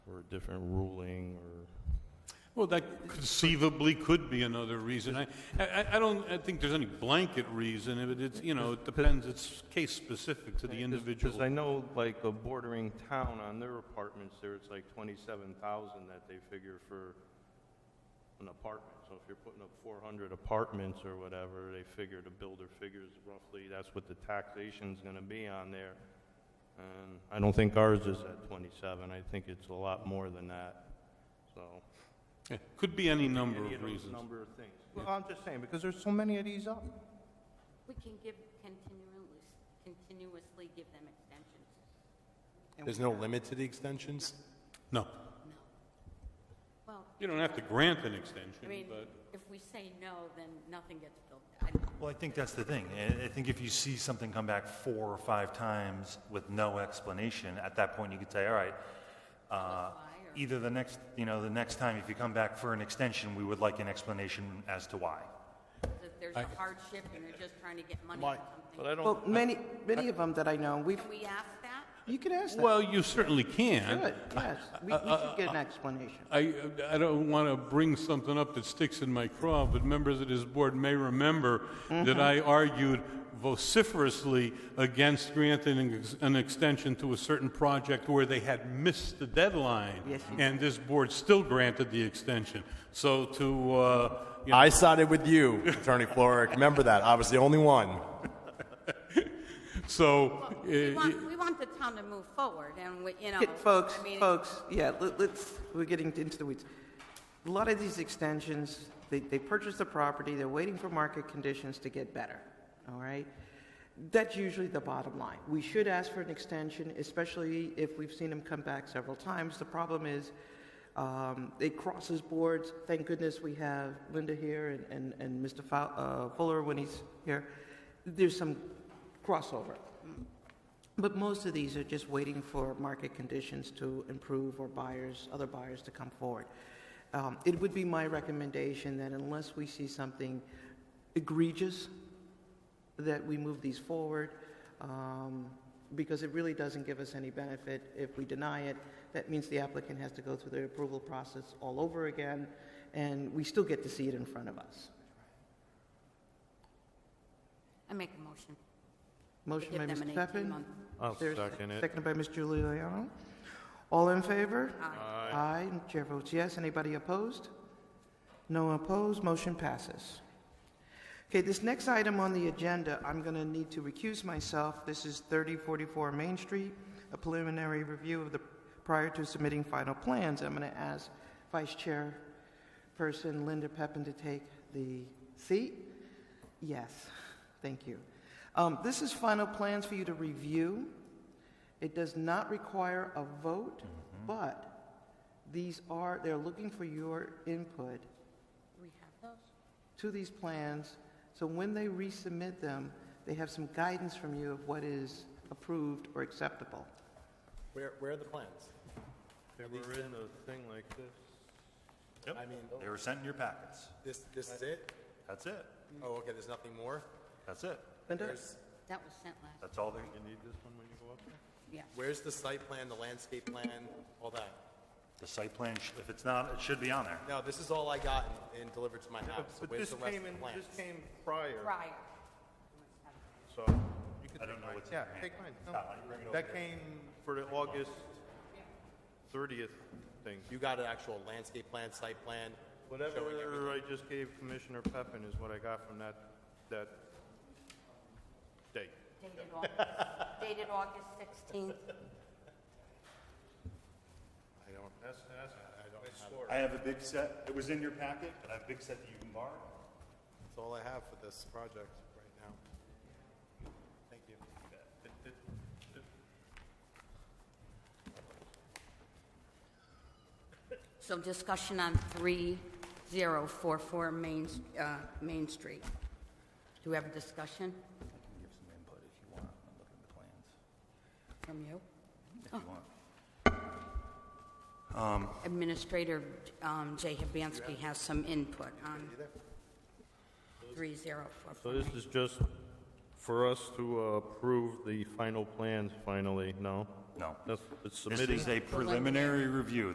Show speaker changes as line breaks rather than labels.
different ruling or?
Well, that conceivably could be another reason. I, I, I don't, I think there's any blanket reason, but it's, you know, it depends, it's case-specific to the individual.
Because I know like a bordering town on their apartments there, it's like twenty-seven thousand that they figure for an apartment. So if you're putting up four hundred apartments or whatever, they figure, the builder figures roughly, that's what the taxation's gonna be on there. And I don't think ours is at twenty-seven, I think it's a lot more than that, so.
Yeah, Could be any number
Any
of
of those
reasons.
number of things. Well, I'm just saying, because there's so many of these up.
We can give continuous, continuously give them extensions.
There's no limit to the extensions?
No,
Well,
you don't have to grant an
I mean,
extension, but
if we say no, then nothing gets built. I-
Well, I think that's the thing. I- I think if you see something come back four or five times with no explanation, at that point you could say, all right, uh,
or-
either the next, you know, the next time if you come back for an extension, we would like an explanation as to why.
That there's a hardship and they're just trying to get money or
Mike.
But
something.
I don't,
Well, many, many of them that I know, we've,
Can we ask that?
you can ask that.
Well, you certainly
Good,
can.
yes. We, we should get an explanation.
I, I don't want to bring something up that sticks in my craw, but members of this board may remember
Mm-hmm.
that I argued vociferously against granting an ex- an extension to a certain project where they had missed the deadline.
Yes, you
And this board still granted the extension. So to, uh, you know,
I sided with you, Attorney Floric. Remember that. I was the only one.
so,
We
uh,
want, we want the town to move forward and, we- you know.
Get- Folks,
I mean,
folks, yeah, let- let's, we're getting into the weeds. A lot of these extensions, they, they purchase the property, they're waiting for market conditions to get better, all right? That's usually the bottom line. We should ask for an extension, especially if we've seen them come back several times. The problem is, um, it crosses boards. Thank goodness we have Linda here and, and, and Mr. Fow- uh, Fuller when he's here. There's some crossover. But most of these are just waiting for market conditions to improve or buyers, other buyers to come forward. Um, It would be my recommendation that unless we see something egregious, that we move these forward, um, because it really doesn't give us any benefit if we deny it. That means the applicant has to go through the approval process all over again, and we still get to see it in front of us.
I make a motion.
Motion by
Give them
Mr.
an
Peppin.
18-month.
I'll
There's-
second it.
Seconded by Ms. Giuliano. All in favor?
Aye.
Aye. and Chair votes yes. Anybody opposed? No opposed, motion passes. Okay, this next item on the agenda, I'm going to need to recuse myself. This is 3044 Main Street, a preliminary review of the, prior to submitting final plans. I'm going to ask Vice Chairperson Linda Pepin to take the seat. Yes, thank you. Um, This is final plans for you to review. It does not require a vote, but these are, they're looking for your input
We have those?
to these plans, so when they resubmit them, they have some guidance from you of what is approved or acceptable.
Where, where are the plans?
They were in a thing like this.
I mean,
They were sent in your packets.
this, this is it?
That's it.
Oh, okay, there's nothing more?
That's it.
Linda?
There's,
That was sent last,
That's all they,
You need this one when you go up there?
yeah.
where's the site plan, the landscape plan, all that?
the site plan, sh- if it's not, it should be on there.
No, this is all I got and- and delivered to my house. So
But
Where's
this
the rest of
came
the
in,
plans?
this came prior,
Prior.
so you could
I don't
take
know
mine.
what's in
Yeah,
your hand.
take mine. No.
Stop, I can bring it over
That
here.
came for the August thirtieth thing.
You got an actual landscape plan, site plan? showing everything?
Whatever I just gave Commissioner Peppin is what I got from that, that date.
Dated August, dated August 16th.
I don't. That's, that's, I don't have.
I have a big set, it was in your packet, but I have a big set that you can borrow.
That's all I have for this project right now. Thank you.
So discussion on 3044 Main, uh, Main Street. Do we have a discussion
Give some input if you want, I'm looking at the plans,
from you?
if you want.
Administrator um, Jay Hibansky has some input on 3044.
So this is just for us to uh, approve the final plans finally, no?
No.
That's, it's
This
submitting.
is a preliminary review.